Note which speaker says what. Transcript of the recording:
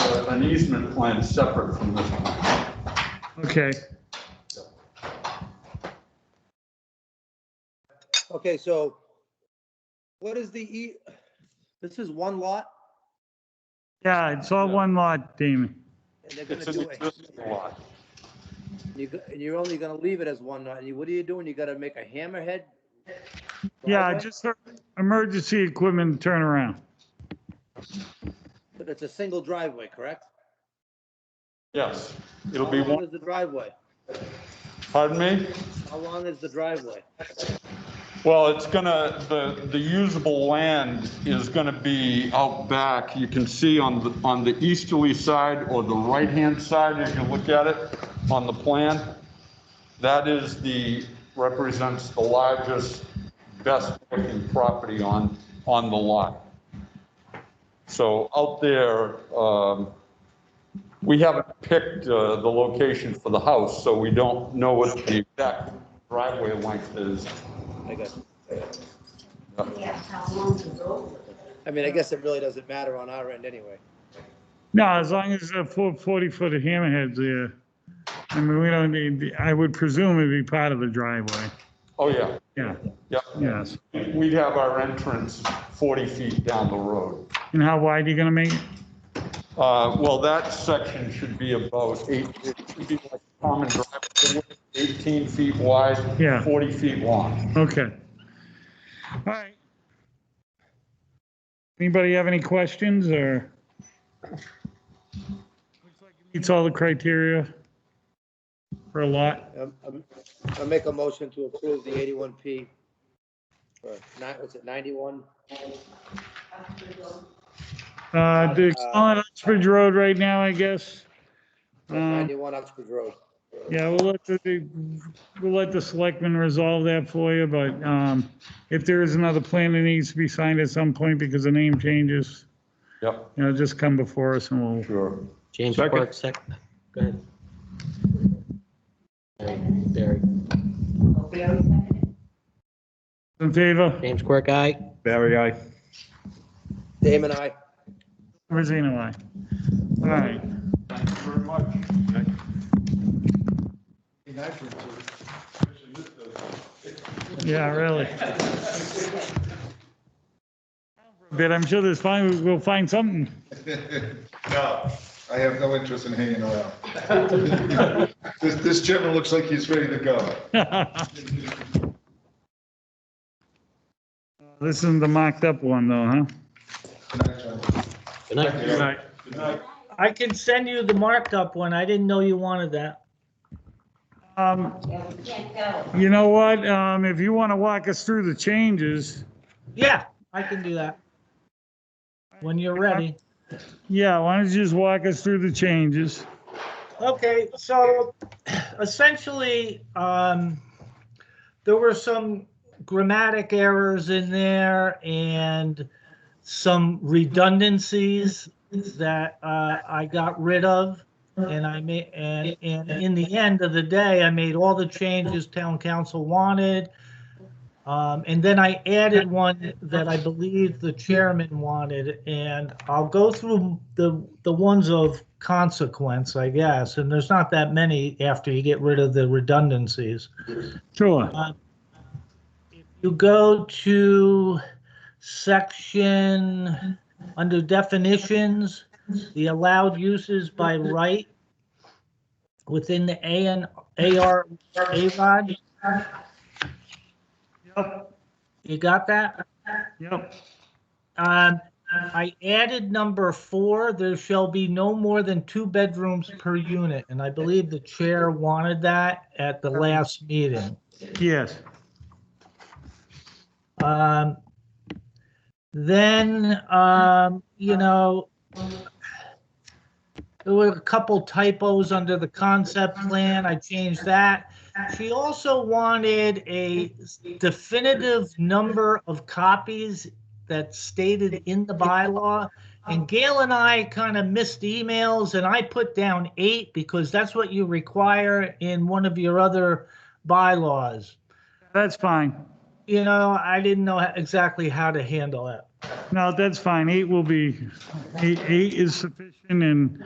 Speaker 1: have an easement plan separate from this one.
Speaker 2: Okay,
Speaker 3: Okay, so what is the E, this is one lot?
Speaker 2: yeah, it's all one lot, Damon.
Speaker 3: And they're
Speaker 1: It's
Speaker 3: gonna
Speaker 1: an
Speaker 3: do it.
Speaker 1: existing lot.
Speaker 3: You go- And you're only gonna leave it as one lot. And you- what are you doing? You gotta make a hammerhead?
Speaker 2: Yeah,
Speaker 3: driveway?
Speaker 2: just for emergency equipment turnaround.
Speaker 3: But it's a single driveway, correct?
Speaker 1: Yes, it'll be
Speaker 3: How long
Speaker 1: one,
Speaker 3: is the driveway?
Speaker 1: pardon me?
Speaker 3: How long is the driveway?
Speaker 1: Well, it's gonna, the, the usable land is gonna be out back. You can see on the, on the easterly side or the right-hand side, if you look at it on the plan. That is the, represents the largest, best-looking property on, on the lot. So out there, um, we haven't picked uh, the location for the house, so we don't know what the exact driveway length is.
Speaker 3: I guess,
Speaker 4: Yeah, how long to go?
Speaker 3: I mean, I guess it really doesn't matter on our end anyway.
Speaker 2: No, as long as the four 40-foot hammerheads there. I mean, we don't need, I would presume it'd be part of the driveway.
Speaker 1: Oh, yeah,
Speaker 2: Yeah,
Speaker 1: yeah.
Speaker 2: yes.
Speaker 1: We'd have our entrance 40 feet down the road.
Speaker 2: And how wide are you gonna make it?
Speaker 1: Uh, Well, that section should be about eight, it should be like common driveway, 18 feet wide.
Speaker 2: Yeah.
Speaker 1: 40 feet long.
Speaker 2: Okay. All right. Anybody have any questions or? Looks like it Meets all the criteria for a lot.
Speaker 3: Um, um, I'll make a motion to approve the eighty-one P. Or nine, was it ninety-one?
Speaker 2: Uh, the on Uxbridge Road right now, I guess. Uh,
Speaker 3: Ninety-one Oxford Road.
Speaker 2: Yeah, we'll let the, we'll let the selectmen resolve that for you, but um, if there is another plan that needs to be signed at some point because the name changes,
Speaker 1: Yep,
Speaker 2: you know, just come before us and we'll,
Speaker 1: sure.
Speaker 5: James
Speaker 1: Second.
Speaker 5: Quirk, second. Go ahead. Barry, Barry.
Speaker 4: Barry seconded?
Speaker 2: in favor,
Speaker 5: James Quirk, aye.
Speaker 6: Barry, I.
Speaker 3: Damon, I.
Speaker 2: Rosino, aye. All right.
Speaker 1: Thank you very much.
Speaker 2: Yeah, really. But I'm sure there's fine, we'll find something.
Speaker 7: No, I have no interest in hanging around. This, this gentleman looks like he's ready to go.
Speaker 2: This isn't the mocked up one though, huh?
Speaker 7: Good night, gentlemen.
Speaker 5: Good night.
Speaker 7: Thank you.
Speaker 1: Good night.
Speaker 8: I can send you the marked up one. I didn't know you wanted that.
Speaker 2: Um,
Speaker 4: Yeah, we can't go.
Speaker 2: you know what, um, if you want to walk us through the changes,
Speaker 8: Yeah, I can do that. When you're ready.
Speaker 2: yeah, why don't you just walk us through the changes?
Speaker 8: Okay, so essentially, um, there were some grammatic errors in there and some redundancies that, uh, I got rid of. And I made, and, and in the end of the day, I made all the changes town council wanted. Um, and then I added one that I believe the chairman wanted, and I'll go through the, the ones of consequence, I guess, and there's not that many after you get rid of the redundancies.
Speaker 2: Sure.
Speaker 8: You go to section, under definitions, the allowed uses by right within the A and AR, AROD,
Speaker 2: Yep,
Speaker 8: you got that?
Speaker 2: yep,
Speaker 8: Um, I added number four, there shall be no more than two bedrooms per unit, and I believe the chair wanted that at the last meeting.
Speaker 2: yes.
Speaker 8: Um, then, um, you know, there were a couple typos under the concept plan. I changed that. She also wanted a definitive number of copies that's stated in the bylaw. And Gail and I kind of missed emails and I put down eight because that's what you require in one of your other bylaws.
Speaker 2: That's fine.
Speaker 8: you know, I didn't know exactly how to handle it.
Speaker 2: No, that's fine. Eight will be, eight, eight is sufficient and